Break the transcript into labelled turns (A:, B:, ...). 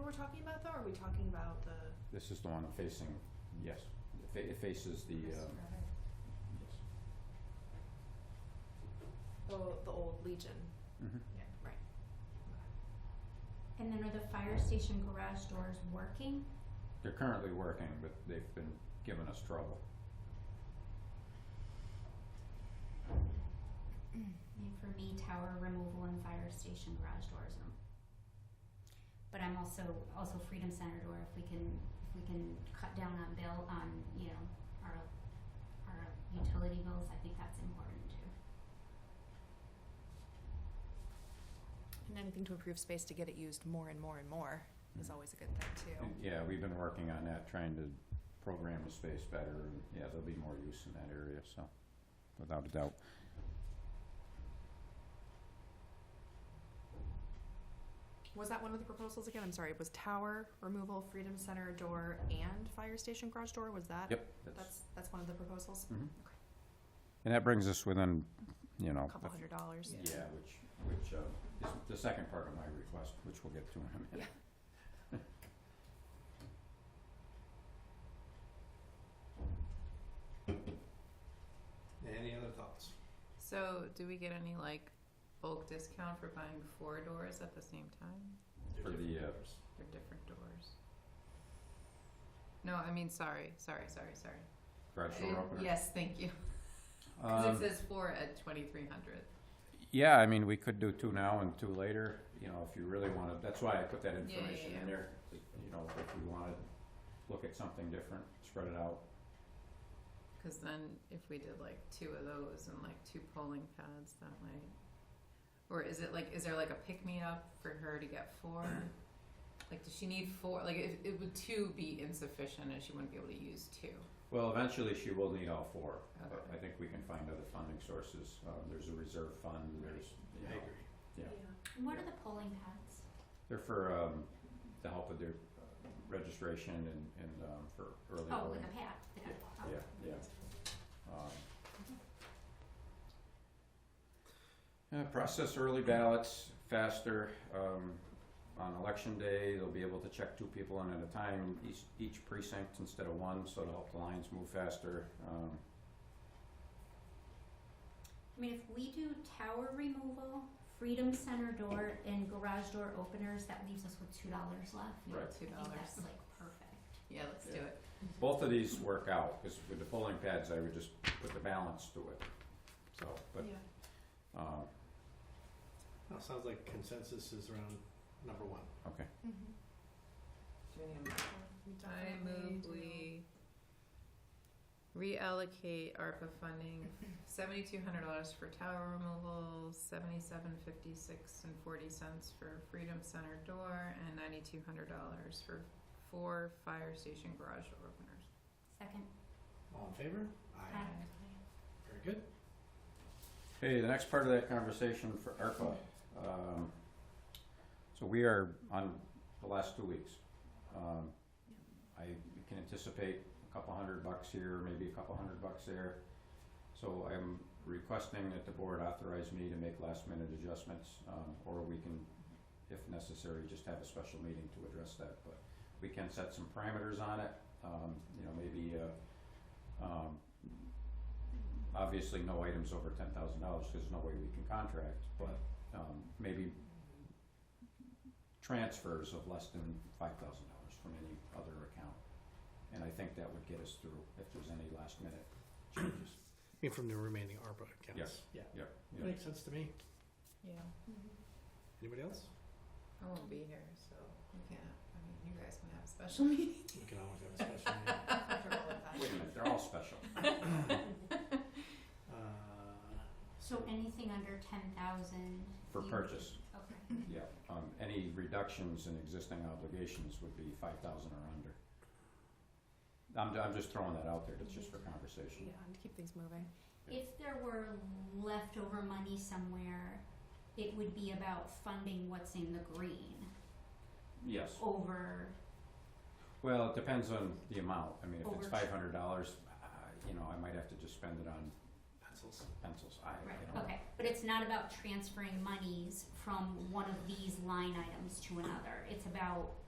A: we're talking about though, or are we talking about the?
B: This is the one facing, yes, it fa- it faces the, um, yes.
A: The, the old Legion,
B: Mhm.
A: yeah, right.
C: And then are the fire station garage doors working?
B: They're currently working, but they've been giving us trouble.
C: I mean, for me, tower removal and fire station garage doors. are- But I'm also, also Freedom Center door, if we can, if we can cut down on bill, on, you know, our, our utility bills, I think that's important too.
D: And anything to improve space to get it used more and more and more is
B: Mhm.
D: always a good thing too.
B: And, yeah, we've been working on that, trying to program the space better, and, yeah, there'll be more use in that area, so, without a doubt.
D: Was that one of the proposals again? I'm sorry, it was tower removal, Freedom Center door, and fire station garage door, was that?
B: Yep, that's,
D: That's, that's one of the proposals,
B: mhm.
D: okay.
B: And that brings us within, you know,
D: a couple
B: the-
D: hundred dollars.
B: yeah, which, which, uh, is the second part of my request, which we'll get to in a minute.
E: Any other thoughts?
F: So, do we get any like bulk discount for buying four doors at the same time?
B: For the, uh,
F: They're different doors. No, I mean, sorry, sorry, sorry, sorry.
B: garage door
F: Uh,
B: opener.
F: Yes, thank you. 'Cause
B: Um,
F: it says four at twenty-three hundred.
B: Yeah, I mean, we could do two now and two later, you know, if you really wanna, that's why I put that
F: yeah,
B: information in
F: yeah.
B: there. You know, if we wanna look at something different, spread it out.
F: Cause then if we did like two of those and like two polling pads, that might. Or is it like, is there like a pick-me-up for her to get four? Like, does she need four? Like, if, it would two be insufficient and she wouldn't be able to use two?
B: Well, eventually she will need all four, but I
F: Okay.
B: think we can find other funding sources. Uh, there's a reserve fund, there's, you know, Yeah.
C: What are the polling pads?
B: they're for, um, the help with their uh, registration and, and, um, for early
C: Oh, with
B: voting.
C: a pad, with a- oh.
B: Yeah, yeah. Um, uh, process early ballots faster. Um, on election day, they'll be able to check two people in at a time in each, each precinct instead of one, so to help the lines move faster. Um,
C: I mean, if we do tower removal, Freedom Center door, and garage door openers, that leaves us with two dollars left.
F: Yeah,
B: Right.
F: Two
C: I think
F: dollars.
C: that's like perfect.
F: Yeah, let's do
B: Yeah.
F: it.
B: both of these work out because with the polling pads, I would just put the balance to it. So, but
A: Yeah.
B: um,
E: Well, sounds like consensus is around number one.
B: okay,
A: Mm-hmm.
F: Do we need a motion? I move we reallocate ARPA funding, seventy-two hundred dollars for tower removal, seventy-seven fifty-six and forty cents for Freedom Center door, and ninety-two hundred dollars for four fire station garage door openers.
C: Second,
E: All in favor?
C: Aye.
E: Very good.
B: Okay, the next part of that conversation for ARPA. Um, so we are on the last two weeks. Um, I can anticipate a couple hundred bucks here, maybe a couple hundred bucks there. So I'm requesting that the board authorize me to make last minute adjustments, um, or we can, if necessary, just have a special meeting to address that. But we can set some parameters on it, um, you know, maybe, uh, um, obviously no items over ten thousand dollars, cause there's no way we can contract, but, um, maybe transfers of less than five thousand dollars from any other account. And I think that would get us through if there's any last minute changes.
E: I mean, from the remaining ARPA accounts.
B: Yes.
E: Yeah.
B: Yep.
E: That Makes sense to me.
F: Yeah, Mm-hmm.
E: Anybody else?
F: I won't be here, so we can't, I mean, you guys can have a special meeting.
E: We can always have a special meeting.
A: Comfortable with that.
B: Wait a minute, they're all special.
E: Uh,
C: so anything under ten thousand?
B: For purchase.
C: Okay,
B: Yeah, um, any reductions in existing obligations would be five thousand or under. I'm, I'm just throwing that out there, that's just for conversation.
D: Yeah, and to keep things moving.
C: if there were leftover money somewhere, it would be about funding what's in the green
B: Yes,
C: over,
B: well, it depends on the amount, I mean, if it's
C: Over-
B: five hundred dollars, uh, you know, I might have to just spend it on
E: pencils.
B: pencils, I,
C: right,
B: you know.
C: okay, but it's not about transferring monies from one of these line items to another, it's about